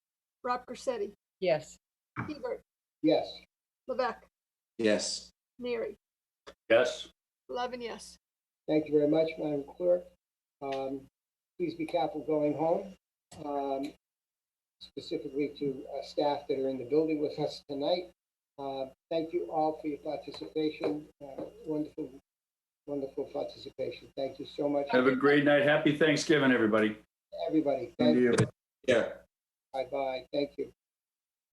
Rob Corsetti, Yes. Hebert, Yes. Levesque, Yes. Neary, yes, eleven yes. Thank you very much, Madam Clerk. Um, Please be careful going home, um, specifically to uh, staff that are in the building with us tonight. Uh, Thank you all for your participation, Uh, wonderful, wonderful participation. Thank you so much, have a great night, happy Thanksgiving, everybody. everybody. Thank Thank you. you. Yeah. Bye-bye, thank you.